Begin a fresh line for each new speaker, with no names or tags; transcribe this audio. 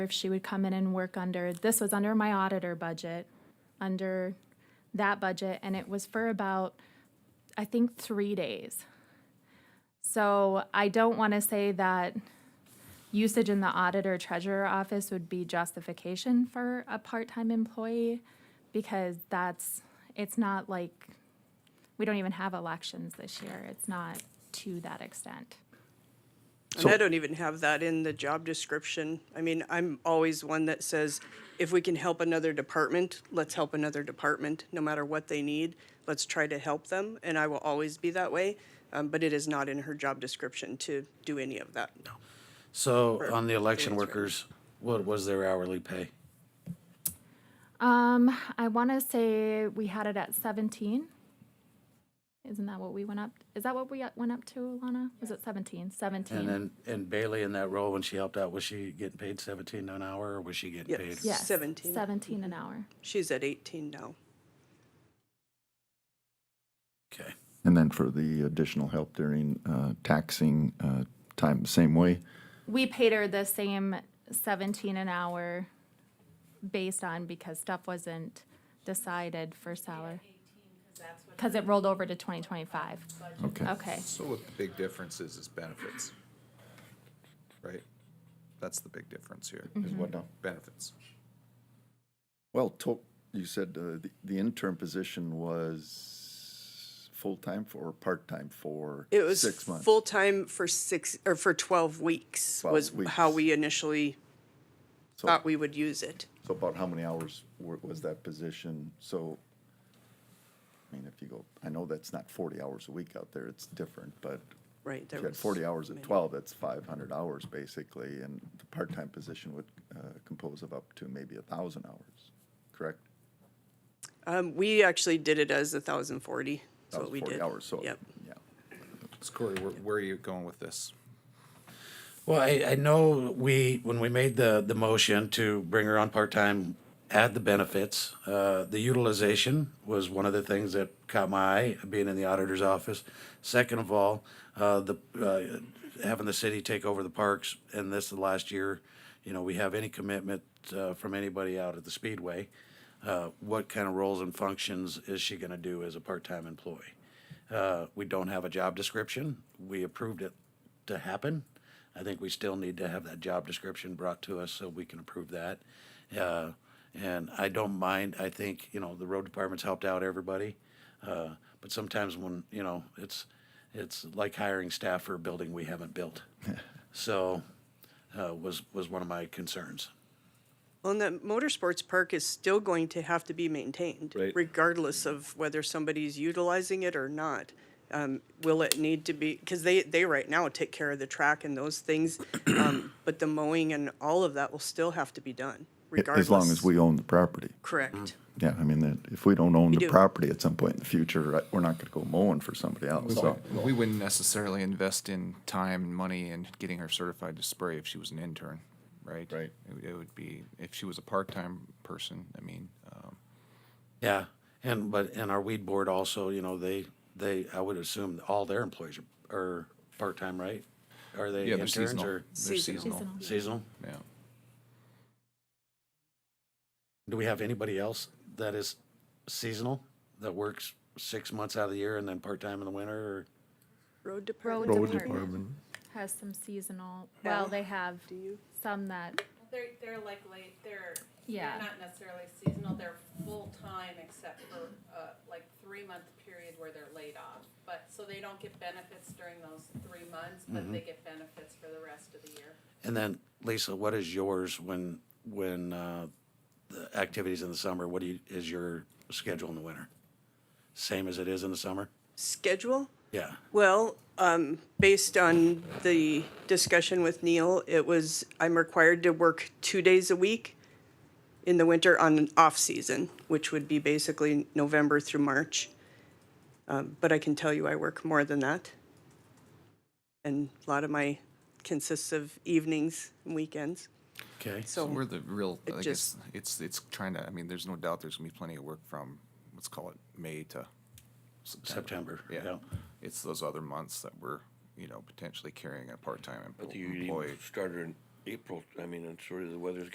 if she would come in and work under, this was under my auditor budget, under that budget, and it was for about, I think, three days. So I don't want to say that usage in the auditor treasurer office would be justification for a part-time employee because that's, it's not like, we don't even have elections this year. It's not to that extent.
And I don't even have that in the job description. I mean, I'm always one that says, if we can help another department, let's help another department, no matter what they need. Let's try to help them, and I will always be that way. Um, but it is not in her job description to do any of that.
So on the election workers, what was their hourly pay?
Um, I want to say we had it at 17. Isn't that what we went up? Is that what we got- went up to, Lana? Was it 17? 17.
And then, and Bailey in that role, when she helped out, was she getting paid seventeen an hour or was she getting paid?
Yes.
yes.
17.
17 an hour.
She's at 18 now.
Okay,
And then for the additional help during uh, taxing uh, time, same way?
We paid her the same 17 an hour based on because stuff wasn't decided for salary. Because it rolled over to 2025.
Okay.
Okay.
So what the big difference is, is benefits. Right? That's the big difference here,
Is what now?
benefits.
Well, to, you said uh, the, the intern position was full-time for, or part-time for
It was
six months?
full time for six or for 12 weeks
12
was how
weeks. Oh.
we initially
So-
thought we would use it.
So about how many hours wa- was that position? So, I mean, if you go, I know that's not forty hours a week out there, it's different, but
Right.
if
there
you had
was
forty hours at
many.
twelve, that's five hundred hours basically, and the part-time position would uh, compose of up to maybe a thousand hours, correct?
Um, we actually did it as 1,040. That's
That
what
was
we
40
did.
hours, so,
Yep.
yeah.
So Corey, where, where are you going with this?
well, I, I know we, when we made the, the motion to bring her on part-time, add the benefits, uh, the utilization was one of the things that caught my eye, being in the auditor's office. Second of all, uh, the, uh, having the city take over the parks, and this is the last year, you know, we have any commitment, uh, from anybody out at the Speedway. uh, what kind of roles and functions is she going to do as a part-time employee? Uh, we don't have a job description. We approved it to happen. I think we still need to have that job description brought to us so we can approve that. Uh, and I don't mind. I think you know the road department's helped out everybody, uh, but sometimes when you know it's it's like hiring staff for a building we haven't built. so uh, was was one of my concerns.
Well, and that motorsports park is still going to have to be maintained,
Right.
regardless of whether somebody's utilizing it or not. Um, will it need to be, because they, they right now take care of the track and those things, um, but the mowing and all of that will still have to be done, regardless.
As long as we own the property.
Correct.
Yeah, I mean, that- if we don't own the
do.
property at some point in the future, I- we're not gonna go mowing for somebody else, so.
We wouldn't necessarily invest in time and money in getting her certified to spray if she was an intern, right?
Right.
It would- It would be, if she was a part-time person, I mean, um,
Yeah, and, but, and our weed board also, you know, they, they, I would assume all their employees are, are part-time, right? Are they
yeah, they're
interns
seasonal.
or
They're
Seasonal.
seasonal,
Seasonal.
seasonal?
yeah.
Do we have anybody else that is seasonal, that works six months out of the year and then part-time in the winter or?
Road
Road
department.
department has some seasonal, well,
Now,
they have some that,
They're, they're like late, they're,
Yeah.
they're not necessarily seasonal, they're full-time except for, uh, like three-month period where they're laid off. But, so they don't get benefits during those three months, but they get benefits for the rest of the year.
And then Lisa, what is yours when, when, uh, the activities in the summer, what do you, is your schedule in the winter? Same as it is in the summer?
Schedule?
Yeah.
Well, um, based on the discussion with Neil, it was, I'm required to work two days a week in the winter on an off-season, which would be basically November through March. Um, but I can tell you I work more than that. And a lot of my consists of evenings and weekends,
Okay.
so.
We're the real,
It
I guess,
just-
it's, it's trying to, I mean, there's no doubt there's gonna be plenty of work from, let's call it May to
September,
Yeah.
yeah.
It's those other months that we're, you know, potentially carrying a part-time
But
empl-
you
employee.
even started in April, I mean, I'm sure the weather's